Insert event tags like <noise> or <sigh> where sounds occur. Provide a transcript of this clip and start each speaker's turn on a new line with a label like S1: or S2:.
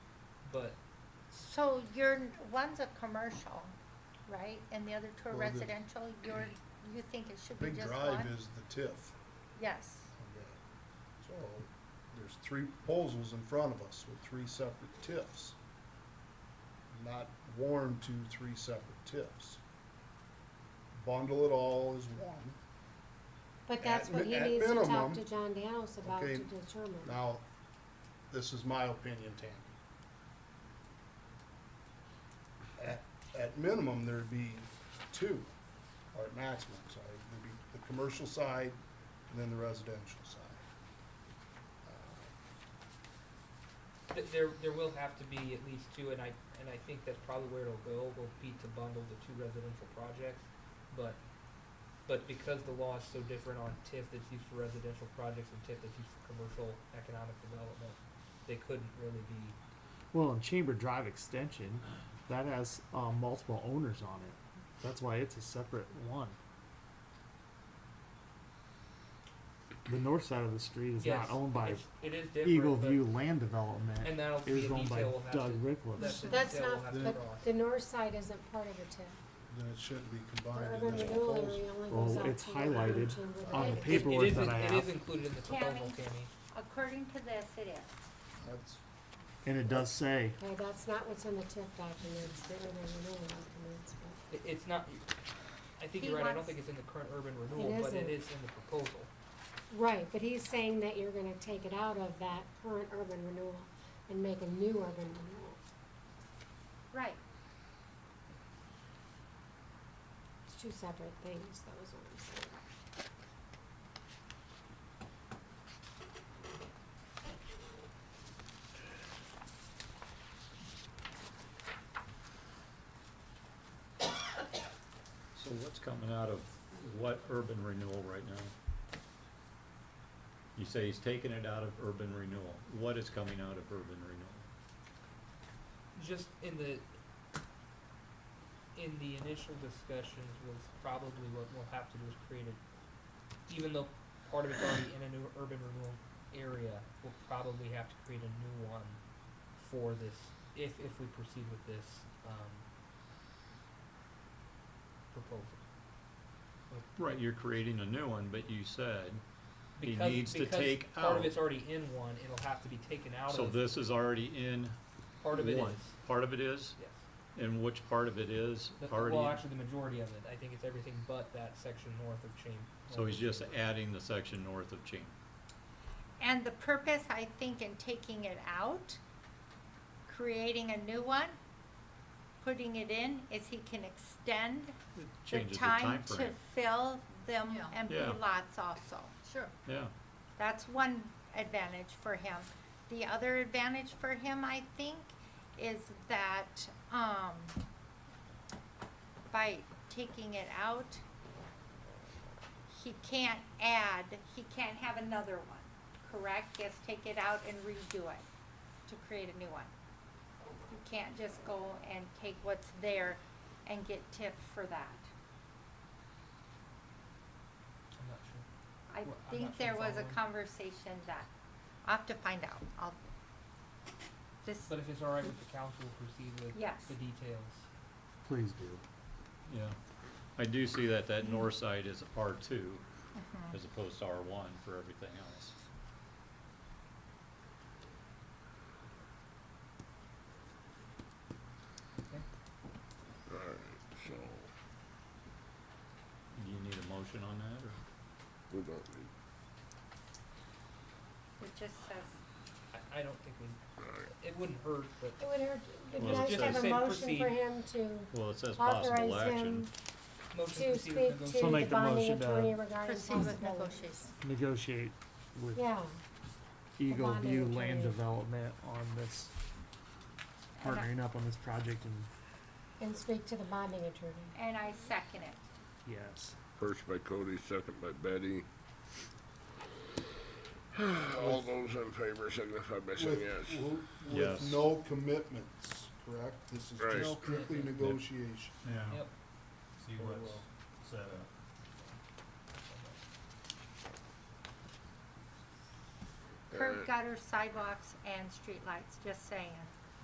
S1: but
S2: So your, one's a commercial, right, and the other two are
S3: Well, the-
S2: residential, you're, you think it should be
S3: Big
S2: just
S3: Drive
S2: one?
S3: is the TIF.
S2: Yes,
S3: So, there's three proposals in front of us with three separate TIFs. Not one, two, three separate TIFs. Bundle it all as one.
S4: But that's
S3: At
S4: what
S3: mi-
S4: he
S3: at
S4: needs to
S3: minimum,
S4: talk to John Danos about
S3: okay,
S4: to determine.
S3: Now, this is my opinion, Tammy. At, at minimum, there'd be two, or at maximum, sorry, there'd be the commercial side and then the residential side. Uh,
S1: th- there, there will have to be at least two, and I, and I think that's probably where it'll go, will be to bundle the two residential projects. But, but because the law is so different on TIF that's used for residential projects and TIF that's used for commercial economic development, they couldn't really be,
S5: Well, and Chamber Drive Extension, that has um, multiple owners on it. That's why it's a separate one. The north side of the street is
S1: yes,
S5: not owned by
S1: it's, it is different,
S5: Eagle
S1: but-
S5: View Land Development.
S1: And that'll
S5: It
S1: be
S5: was
S1: a
S5: owned by
S1: detail we'll have to.
S5: Doug Rickless.
S1: that's a
S4: That's
S1: detail we'll
S4: not-
S1: have to
S3: but
S1: cross.
S4: The north side isn't part of the TIF.
S3: Then it shouldn't be
S4: The
S3: combined in
S4: urban
S3: this
S4: renewal
S3: proposal.
S4: area only
S5: Well,
S4: goes out
S5: it's
S4: to the urban
S5: highlighted
S4: chamber.
S2: on the
S1: It- it-
S5: paperwork
S1: it is
S5: that
S1: in-
S5: I
S1: It
S5: have.
S1: is included in the proposal,
S2: Tammy.
S1: Tammy.
S2: according to this, it is.
S3: That's,
S5: And it does say,
S4: Okay, that's not what's in the TIF documents, the urban renewal documents, but
S1: It, it's not, I think
S2: He
S1: you're right, I don't
S2: wants-
S1: think it's in the current urban renewal, but it
S4: isn't.
S1: is in the proposal.
S4: Right, but he's saying that you're gonna take it out of that current urban renewal and make a new urban renewal.
S2: Right,
S4: It's two separate things, that was what I'm saying.
S6: So what's coming out of what urban renewal right now? You say he's taking it out of urban renewal. What is coming out of urban renewal?
S1: just in the in the initial discussions was probably what we'll have to do is create a even though part of it's already in a new urban renewal area, we'll probably have to create a new one for this if if we proceed with this um proposal.
S6: Right, you're creating a new one, but you said he
S1: Because-
S6: needs to
S1: because
S6: take
S1: part of
S6: out.
S1: it's already in one, it'll have to be taken out
S6: So
S1: of
S6: this is already in
S1: part of it
S6: one.
S1: is.
S6: Part of it is,
S1: Yes.
S6: and which part of it is
S1: The-
S6: already?
S1: Well, actually, the majority of it. I think it's everything but that section north of Chamber.
S6: So he's just adding the section north of Chamber.
S2: and the purpose, I think, in taking it out, creating a new one, putting it in, is he can extend
S6: It
S2: the
S6: Changes the
S2: time to
S6: timeframe.
S2: fill them
S7: Yeah.
S2: empty
S6: Yeah.
S2: lots also.
S7: Sure.
S6: Yeah,
S2: That's one advantage for him. The other advantage for him, I think, is that, um, by taking it out, he can't add, he can't have another one, correct? Yes, take it out and redo it to create a new one. You can't just go and take what's there and get tipped for that.
S1: I'm not sure.
S2: I
S1: Well, I'm not
S2: think
S1: sure
S2: there
S1: if
S2: was
S1: I'm
S2: a
S1: on.
S2: conversation that, I'll have to find out, I'll, this,
S1: But if it's all right with the council, we'll proceed with
S2: Yes.
S1: the details.
S5: please do.
S6: yeah. I do see that that north side is R two
S2: Mhm.
S6: as opposed to R one for everything else.
S8: Alright, so,
S6: Do you need a motion on that, or?
S8: we don't need,
S2: it just says,
S1: I, I don't think we,
S8: alright.
S1: it wouldn't hurt, but
S4: It would hurt, it'd be
S6: Well, it
S4: nice to have a
S6: says-
S1: Say
S4: motion for
S1: proceed.
S4: him to
S6: Well, it says possible
S4: authorize
S6: action.
S4: him
S1: motion to
S4: to
S1: proceed with
S4: speak
S1: negotiations.
S4: to the
S5: make the
S4: bonding
S5: motion to
S4: attorney regarding
S2: proceed with
S4: possible.
S2: negotiations.
S5: Negotiate with
S4: Yeah,
S5: Eagle
S4: bonding
S5: View Land
S4: attorney.
S5: Development on this,
S2: And I-
S5: partnering up on this project and
S4: and speak to the bonding attorney.
S2: And I second it.
S5: yes.
S8: First by Cody, second by Betty. <sighs> All those in favor signify by saying
S3: With,
S8: yes.
S3: w-
S6: Yes.
S3: with no commitments, correct? This is
S8: Right. No
S3: just strictly
S1: commitment.
S3: negotiation.
S1: Yep,
S9: see
S3: Very
S9: what's
S3: well.
S9: set up.
S2: Curb
S8: Alright.
S2: gutter sidewalks and streetlights, just saying.